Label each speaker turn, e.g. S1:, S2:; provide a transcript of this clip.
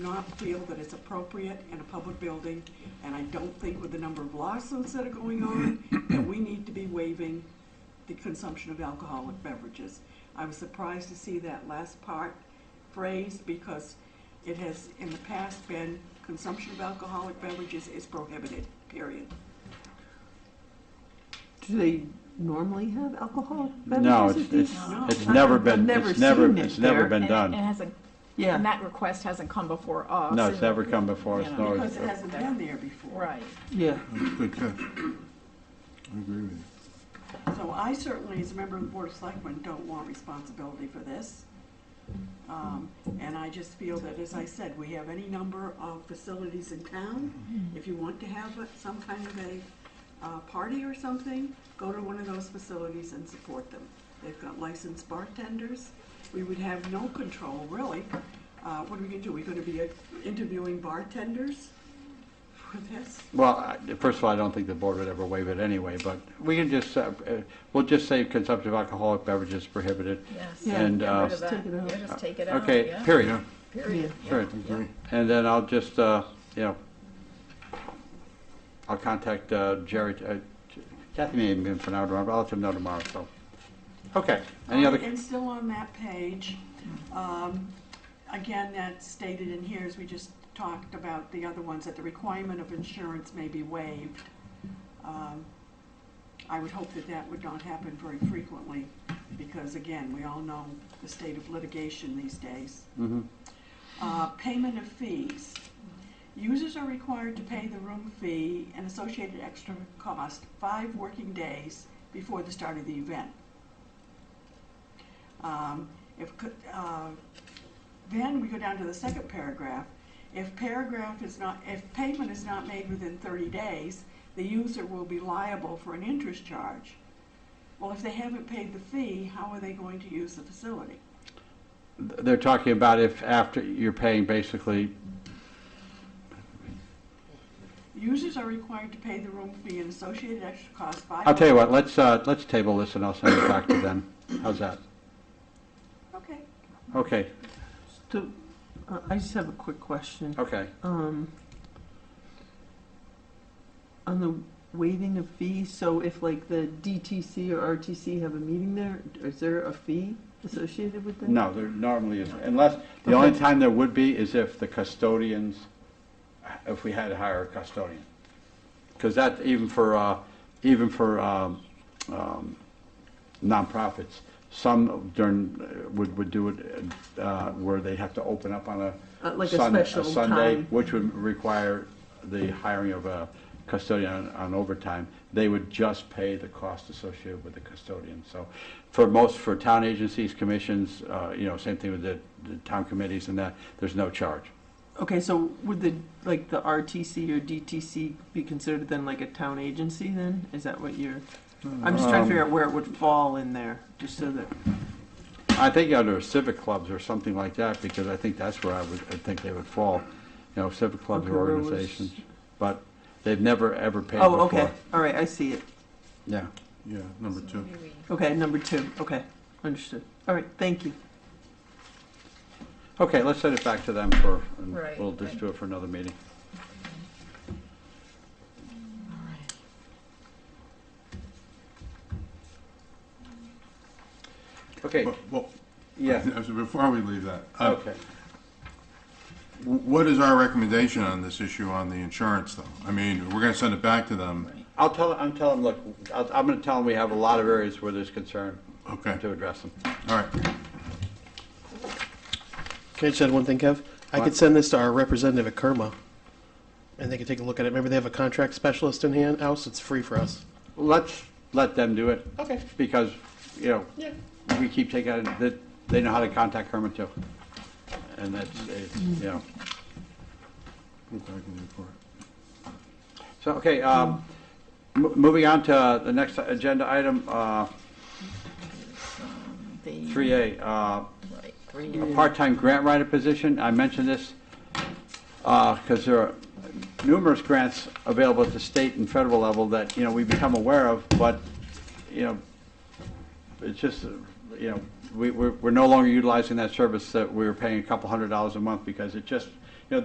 S1: not feel that it's appropriate in a public building, and I don't think with the number of lawsuits that are going on, that we need to be waiving the consumption of alcoholic beverages. I was surprised to see that last part phrased, because it has in the past been, consumption of alcoholic beverages is prohibited, period.
S2: Do they normally have alcohol
S3: No,
S2: beverages
S3: it's,
S2: at these?
S3: it's,
S1: No.
S3: it's
S2: I-
S3: never
S2: I've
S3: been,
S2: never
S3: it's never,
S2: seen it
S3: it's never
S2: there.
S3: been
S4: And it
S3: done.
S4: hasn't, and
S2: Yeah,
S4: that request hasn't come before us.
S3: No, it's
S4: and-
S3: never come before us,
S4: you know,
S3: nor
S1: Because
S3: is
S1: it
S3: it.
S1: hasn't been there before.
S4: Right.
S2: yeah.
S5: That's a good catch. I agree with you.
S1: So I certainly, as a member of the Board of Selectmen, don't want responsibility for this. Um, And I just feel that, as I said, we have any number of facilities in town. If you want to have a- some kind of a uh, party or something, go to one of those facilities and support them. They've got licensed bartenders. We would have no control, really. Uh, What are we gonna do? We're gonna be uh, interviewing bartenders for this?
S3: Well, I- first of all, I don't think the board would ever waive it anyway, but we can just, uh, uh, we'll just say consumption of alcoholic beverages prohibited.
S4: Yes.
S2: Yeah,
S3: And,
S4: Get
S3: uh,
S4: rid of that.
S2: Take it out.
S4: Yeah, just take it out.
S3: Okay,
S4: yeah,
S3: period,
S5: Yeah,
S4: Period.
S3: Sure.
S5: I agree.
S3: And then I'll just, uh, you know, I'll contact uh, Jerry, uh, Kathy may have been for now tomorrow, but I'll let him know tomorrow, so. Okay, any
S1: Um,
S3: other, Hmm.
S1: And still on that page, um, again, that's stated in here, as we just talked about the other ones, that the requirement of insurance may be waived. Um, I would hope that that would not happen very frequently, because again, we all know the state of litigation these days.
S3: Mhm.
S1: Uh, Payment of fees. Users are required to pay the room fee and associated extra cost five working days before the start of the event. Um, If, co- uh, then we go down to the second paragraph. If paragraph is not, if payment is not made within 30 days, the user will be liable for an interest charge. Well, if they haven't paid the fee, how are they going to use the facility?
S3: they're talking about if after, you're paying basically
S1: Users are required to pay the room fee and associated extra costs by.
S3: I'll tell you what, let's, uh, let's table this and I'll send it back to them. How's that?
S1: Okay.
S3: Okay,
S2: So, uh, I just have a quick question.
S3: okay.
S2: Um, on the waiving of fees, so if like the DTC or RTC have a meeting there, is there a fee associated with that?
S3: No, there normally is, unless, the only
S2: Okay.
S3: time there would be is if the custodians, if we had to hire a custodian. Because that, even for, uh, even for um, um, nonprofits, some during, uh, would, would do it uh, where they have to open up on a
S2: Uh, like a
S3: Sun-
S2: special
S3: Sunday,
S2: time.
S3: which would require the hiring of a custodian on- on overtime. They would just pay the cost associated with the custodian. So for most, for town agencies, commissions, uh, you know, same thing with the, the town committees and that, there's no charge.
S2: Okay, so would the, like the RTC or DTC be considered then like a town agency then? Is that what you're, I'm just trying to
S3: Um,
S2: figure out where it would fall in there, just so that,
S3: I think under civic clubs or something like that, because I think that's where I would, I think they would fall. You know, civic clubs
S2: Okay,
S3: or
S2: where was-
S3: organizations, but they've never, ever paid before.
S2: oh, okay, all right, I see it.
S3: Yeah.
S5: Yeah, number two.
S4: Maybe we-
S2: Okay, number two, okay, understood. All right, thank you.
S3: Okay, let's send it back to them for, and
S4: Right.
S3: we'll just do it for another meeting. Okay,
S5: But- Well,
S3: yeah,
S5: Before we leave that. uh,
S3: okay.
S5: wh- What is our recommendation on this issue on the insurance, though? I mean, we're going to send it back to them.
S3: I'll tell, I'm telling, look, I'll- I'm gonna tell them we have a lot of areas where there's concern
S5: Okay,
S3: to address them.
S5: all right.
S6: Can I just add one thing, Kev? I
S3: What?
S6: could send this to our representative at Kerma, and they could take a look at it. Remember, they have a contract specialist in hand, house, it's free for us.
S3: Let's let them do it,
S6: Okay,
S3: because, you know,
S6: yeah.
S3: we keep taking, it that they know how to contact Herman too. And that's, it's, you know.
S5: Look, I can do it for it.
S3: So, okay, um, mo- moving on to the next agenda item, uh,
S4: The-
S3: 3A, uh,
S4: Right, three.
S3: part-time grant writer position. I mentioned this because there are numerous grants available at the state and federal level that, you know, we become aware of, but, you know, it's just, uh, you know, we, we're, we're no longer utilizing that service that we were paying a couple hundred dollars a month because it just